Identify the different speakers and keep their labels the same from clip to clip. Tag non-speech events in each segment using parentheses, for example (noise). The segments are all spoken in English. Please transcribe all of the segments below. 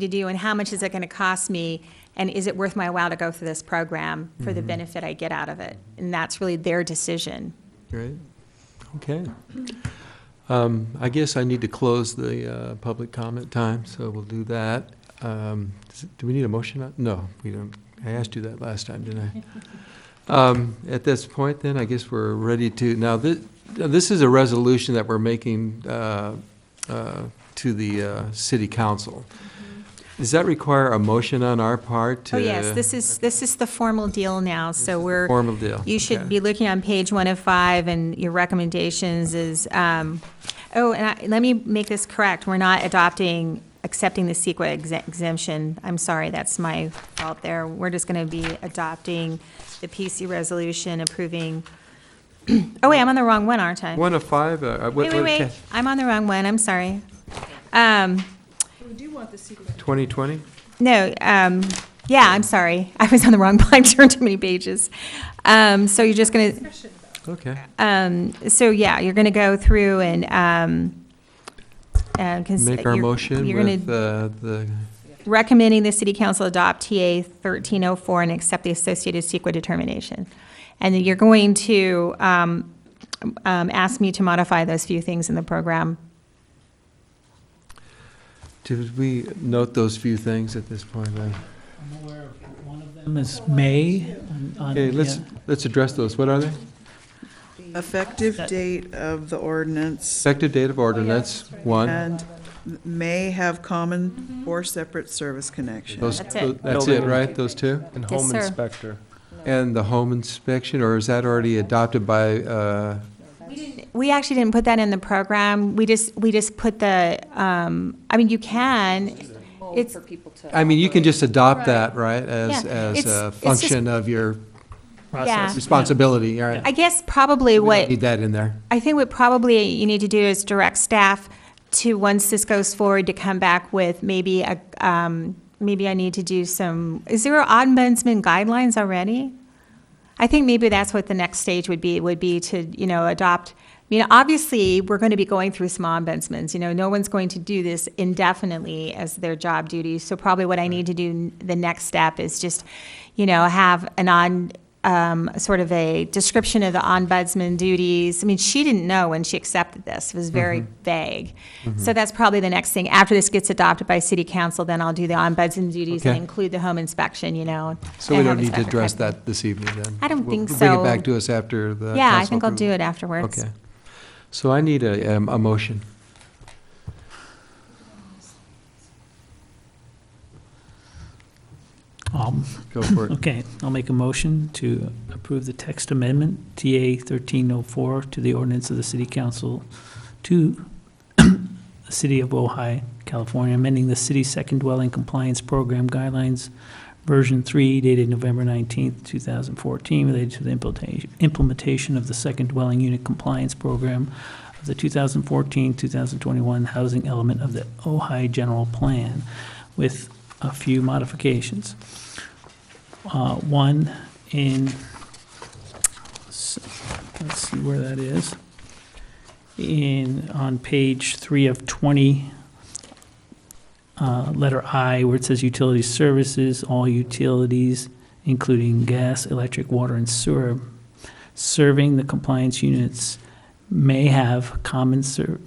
Speaker 1: to do, and how much is it going to cost me? And is it worth my while to go through this program for
Speaker 2: Mm-hmm.
Speaker 1: the benefit I get out of it? And that's really their decision.
Speaker 2: Great, okay. Um, I guess I need to close the uh, public comment time, so we'll do that. Um, does- Do we need a motion? on- No, we don't. I asked you that last time, didn't
Speaker 1: (laughs)
Speaker 2: I? Um, At this point, then, I guess we're ready to, now, this, this is a resolution that we're making uh, uh, to the uh, city council. Does that require a motion on our part to?
Speaker 1: Mm-hmm. Oh, yes, this is, this is the formal deal now, so we're.
Speaker 2: Formal deal.
Speaker 1: You should
Speaker 2: Okay.
Speaker 1: be looking on page one of five, and your recommendations is, um, oh, and I, let me make this correct, we're not adopting, accepting the E CEQA exe- exemption. I'm sorry, that's my fault there. We're just gonna be adopting the PC resolution approving, (clears throat) oh, wait, I'm on the wrong one, aren't I?
Speaker 2: One of five, uh, what?
Speaker 1: Wait, wait,
Speaker 2: what-
Speaker 1: wait, I'm on the wrong one, I'm sorry. Um,
Speaker 3: We do want the secret.
Speaker 2: 2020?
Speaker 1: No, um, yeah, I'm sorry, (laughs) I was on the wrong, I turned too many pages. Um, so you're just gonna,
Speaker 3: Discussion about it.
Speaker 2: Okay.
Speaker 1: Um, so yeah, you're gonna go through and, um, uh, cons-
Speaker 2: Make our
Speaker 1: you're-
Speaker 2: motion
Speaker 1: You're gonna
Speaker 2: with uh, the,
Speaker 1: recommending the city council adopt TA thirteen oh four and accept the associated CEQA determination. And then you're going to, um, um, ask me to modify those few things in the program.
Speaker 2: did we note those few things at this point
Speaker 1: Um,
Speaker 2: then?
Speaker 4: I'm aware of one of them is May. on- on-
Speaker 2: Okay, let's,
Speaker 4: yeah.
Speaker 2: let's address those. What are they?
Speaker 5: Effective
Speaker 4: That-
Speaker 5: date of the ordinance
Speaker 2: Effective date of
Speaker 1: Oh,
Speaker 2: ordinance,
Speaker 1: Uh,
Speaker 2: one.
Speaker 5: and may have common or separate service connection.
Speaker 2: Those,
Speaker 1: That's it.
Speaker 2: that's it, right? Those two?
Speaker 6: And
Speaker 1: Yes,
Speaker 6: home
Speaker 1: sir.
Speaker 6: inspector.
Speaker 2: And the home inspection, or is that already adopted by, uh,
Speaker 1: We actually didn't put that in the program, we just, we just put the, um, I mean, you can, it's,
Speaker 2: I mean, you can just adopt that, right? As,
Speaker 1: Yeah.
Speaker 2: as
Speaker 1: It's-
Speaker 2: a
Speaker 1: it's just-
Speaker 2: function of your
Speaker 1: yeah.
Speaker 2: responsibility, all
Speaker 1: I
Speaker 2: right?
Speaker 1: guess probably
Speaker 2: We
Speaker 1: what.
Speaker 2: don't Need that in there.
Speaker 1: I think what probably you need to do is direct staff to, once this goes forward, to come back with maybe a, um, maybe I need to do some, is there ombudsman guidelines already? I think maybe that's what the next stage would be, would be to, you know, adopt, I mean, obviously, we're going to be going through some ombudsmans, you know, no one's going to do this indefinitely as their job duty. So probably what I need to do, n- the next step is just, you know, have an on, um, sort of a description of the ombudsman duties. I mean, she didn't know when she accepted this, it was very
Speaker 2: Mm-hmm.
Speaker 1: vague. So that's probably the next thing. After this gets adopted by city council, then I'll do the ombudsman duties and
Speaker 2: Okay.
Speaker 1: include the home inspection, you know.
Speaker 2: So we
Speaker 1: and
Speaker 2: don't
Speaker 1: have a
Speaker 2: need to
Speaker 1: separate
Speaker 2: address
Speaker 1: type of-
Speaker 2: that this evening then?
Speaker 1: I don't
Speaker 2: We'll-
Speaker 1: think
Speaker 2: we'll Bring
Speaker 1: so.
Speaker 2: it back to us after the.
Speaker 1: Yeah, I
Speaker 2: council
Speaker 1: think I'll do
Speaker 2: approval.
Speaker 1: it afterwards.
Speaker 2: Okay. So I need a, um, a motion.
Speaker 4: Um,
Speaker 2: Go for (laughs) it.
Speaker 4: Okay, I'll make a motion to approve the text amendment, TA 1304, to the ordinance of the city council to (coughs) the city of Ojai, California, amending the city second dwelling compliance program guidelines, version 3 dated November 19th, 2014, related to the implementation- implementation of the second dwelling unit compliance program of the 2014-2021 housing element of the Ojai general plan with a few modifications uh, one in, let's see where that is, in, on page three of 20, uh, letter I, where it says utility services, all utilities, including gas, electric, water, and sewer, serving the compliance units may have common ser,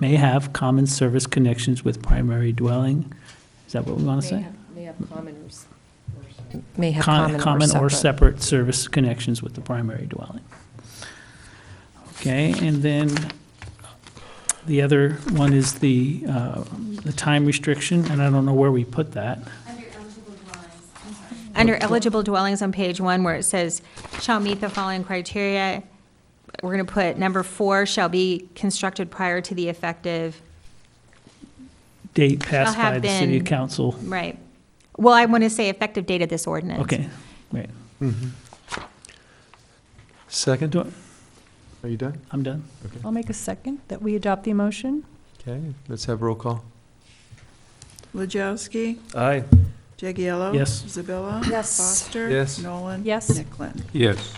Speaker 4: may have common service connections with primary dwelling. Is that what we want to say?
Speaker 7: May have common or. s- May have
Speaker 4: Con-
Speaker 7: common or separate.
Speaker 4: separate service connections with the primary dwelling. Okay, and then the other one is the, uh, the time restriction, and I don't know where we put that.
Speaker 1: Under eligible dwellings on page one, where it says, shall meet the following criteria, we're gonna put number four, shall be constructed prior to the effective,
Speaker 4: Date passed
Speaker 1: Shall have
Speaker 4: by the city
Speaker 1: been-
Speaker 4: council.
Speaker 1: right. Well, I wanna say effective date of this ordinance.
Speaker 4: Okay, right,
Speaker 2: Mm-hmm. Second?
Speaker 4: Do
Speaker 2: Are you done?
Speaker 4: I'm done.
Speaker 7: I'll make a second that we adopt the motion.
Speaker 2: Okay, let's have roll call.
Speaker 5: Lajowski,
Speaker 6: Aye.
Speaker 5: Jagiello.
Speaker 4: Yes.
Speaker 5: Isabella.
Speaker 7: Yes.
Speaker 5: Foster.
Speaker 2: Yes.
Speaker 5: Nolan.
Speaker 7: Yes.
Speaker 5: Nicklin.
Speaker 6: Yes.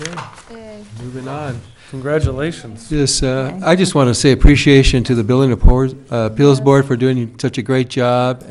Speaker 2: Okay,
Speaker 7: Eh,
Speaker 2: moving on.
Speaker 6: Congratulations.
Speaker 2: Yes, uh, I just want to say appreciation to the Building Appo- uh, Appeals Board for doing such a great job